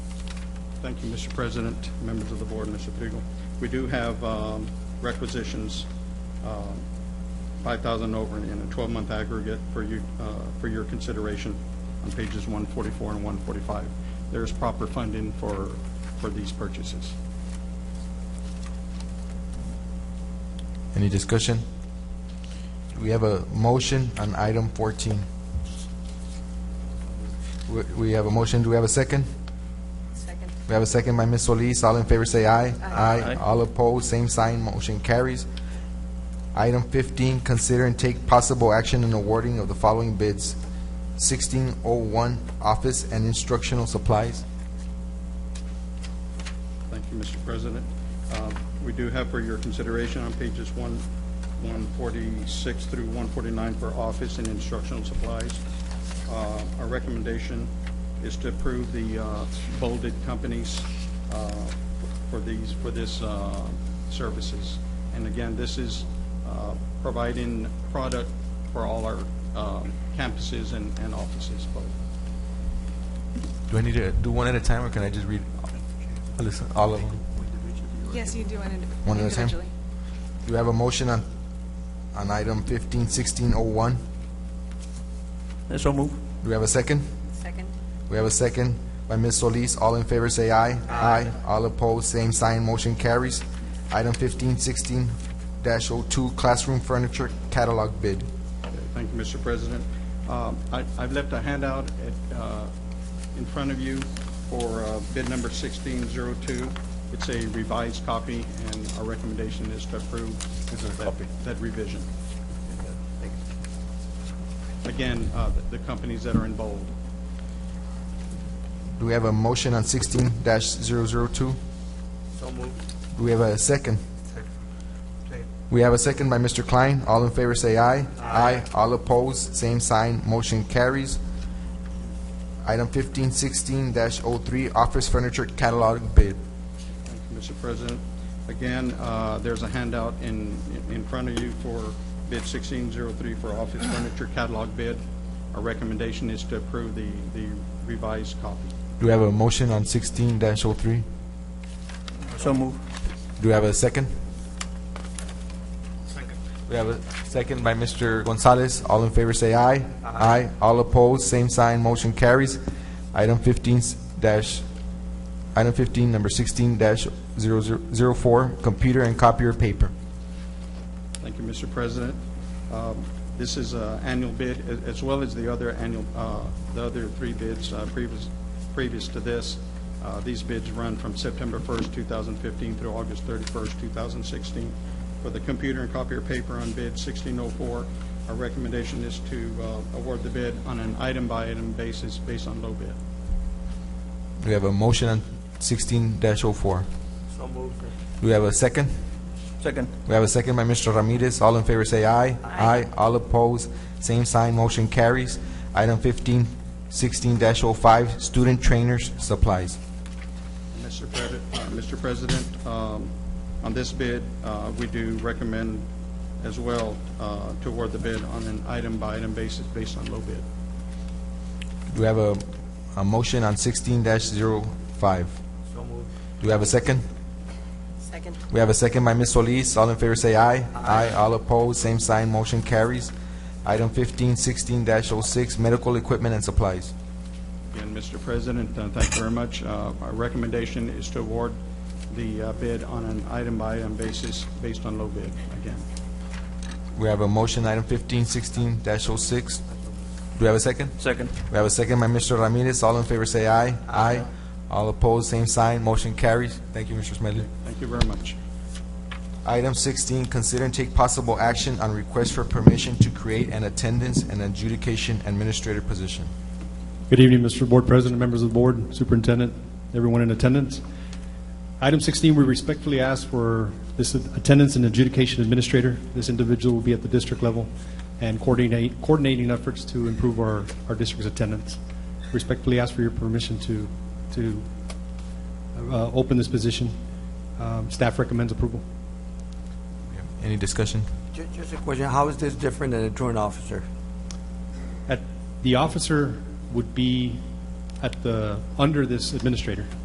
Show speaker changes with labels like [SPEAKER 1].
[SPEAKER 1] Thank you, Mr. President, members of the board, Mr. Pegel. We do have um, requisitions, um, 5,000 over in a 12-month aggregate for you, uh, for your consideration on pages 144 and 145. There's proper funding for, for these purchases.
[SPEAKER 2] Any discussion? We have a motion on item 14. We- We have a motion, do we have a second?
[SPEAKER 3] Second.
[SPEAKER 2] We have a second by Ms. Solis, all in favor say aye.
[SPEAKER 1] Aye.
[SPEAKER 2] All opposed, same sign, motion carries. Item 15, consider and take possible action in awarding of the following bids. 1601, office and instructional supplies.
[SPEAKER 1] Thank you, Mr. President. Um, We do have for your consideration on pages one- 146 through 149 for office and instructional supplies. Uh, Our recommendation is to approve the uh, bolded companies uh, for these, for this uh, services. And again, this is uh, providing product for all our um, campuses and and offices, both.
[SPEAKER 2] Do I need to do one at a time, or can I just read Alyssa, all of them?
[SPEAKER 3] Yes, you do want to
[SPEAKER 2] One at a time?
[SPEAKER 3] individually.
[SPEAKER 2] Do you have a motion on, on item 15, 1601?
[SPEAKER 4] So move.
[SPEAKER 2] Do we have a second?
[SPEAKER 3] Second.
[SPEAKER 2] We have a second by Ms. Solis. All in favor say aye. Aye. All opposed, same sign, motion carries. Item 1516-02, classroom furniture catalog bid.
[SPEAKER 1] Thank you, Mr. President. Um, I- I've left a handout at, uh, in front of you for uh, bid number 1602. It's a revised copy, and our recommendation is to approve that- that revision. Again, uh, the the companies that are in bold.
[SPEAKER 2] Do we have a motion on 16-002? So moved. Do we have a second? We have a second by Mr. Klein. All in favor say aye. Aye. All opposed, same sign, motion carries. Item 1516-03, office furniture catalog bid.
[SPEAKER 1] Thank you, Mr. President. Again, uh, there's a handout in, in front of you for bid 1603 for office furniture catalog bid. Our recommendation is to approve the the revised copy.
[SPEAKER 2] Do we have a motion on 16-03?
[SPEAKER 4] So move.
[SPEAKER 2] Do we have a second? Second. We have a second by Mr. Gonzalez. All in favor say aye. Aye. All opposed, same sign, motion carries. Item 15 's dash, item 15, number 16 dash 0004, computer and copier paper.
[SPEAKER 1] Thank you, Mr. President. Um, This is an annual bid, a- as well as the other annual, uh, the other three bids uh, previous, previous to this. Uh, These bids run from September 1st, 2015 through August 31st, 2016. For the computer and copier paper on bid 1604, our recommendation is to uh, award the bid on an item-by-item basis based on low bid.
[SPEAKER 2] We have a motion on 16 dash 04.
[SPEAKER 4] So move.
[SPEAKER 2] Do we have a second?
[SPEAKER 4] Second.
[SPEAKER 2] We have a second by Mr. Ramirez. All in favor say aye. Aye. All opposed, same sign, motion carries. Item 15, 16-05, student trainers supplies.
[SPEAKER 1] Mr. Pres- uh, Mr. President, um, on this bid, uh, we do recommend as well uh, to award the bid on an item-by-item basis based on low bid.
[SPEAKER 2] Do we have a, a motion on 16-05?
[SPEAKER 4] So move.
[SPEAKER 2] Do we have a second?
[SPEAKER 3] Second.
[SPEAKER 2] We have a second by Ms. Solis. All in favor say aye. Aye. All opposed, same sign, motion carries. Item 15, 16-06, medical equipment and supplies.
[SPEAKER 1] Again, Mr. President, uh, thank you very much. Uh, Our recommendation is to award the uh, bid on an item-by-item basis based on low bid again.
[SPEAKER 2] We have a motion, item 15, 16-06. Do we have a second?
[SPEAKER 4] Second.
[SPEAKER 2] We have a second by Mr. Ramirez. All in favor say aye. Aye. All opposed, same sign. Motion carries. Thank you, Mr. Smedley.
[SPEAKER 1] Thank you very much.
[SPEAKER 2] Item 16, consider and take possible action on request for permission to create an attendance and adjudication administrator position.
[SPEAKER 5] Good evening, Mr. Board President, members of the board, superintendent, everyone in attendance. Item 16, we respectfully ask for this attendance and adjudication administrator. This individual will be at the district level and coordinate, coordinating efforts to improve our, our district's attendance. Respectfully ask for your permission to, to uh, open this position. Um, Staff recommends approval.
[SPEAKER 2] Any discussion?
[SPEAKER 6] Ju- Just a question, how is this different than a truant officer?
[SPEAKER 5] At- The officer would be at the, under this administrator.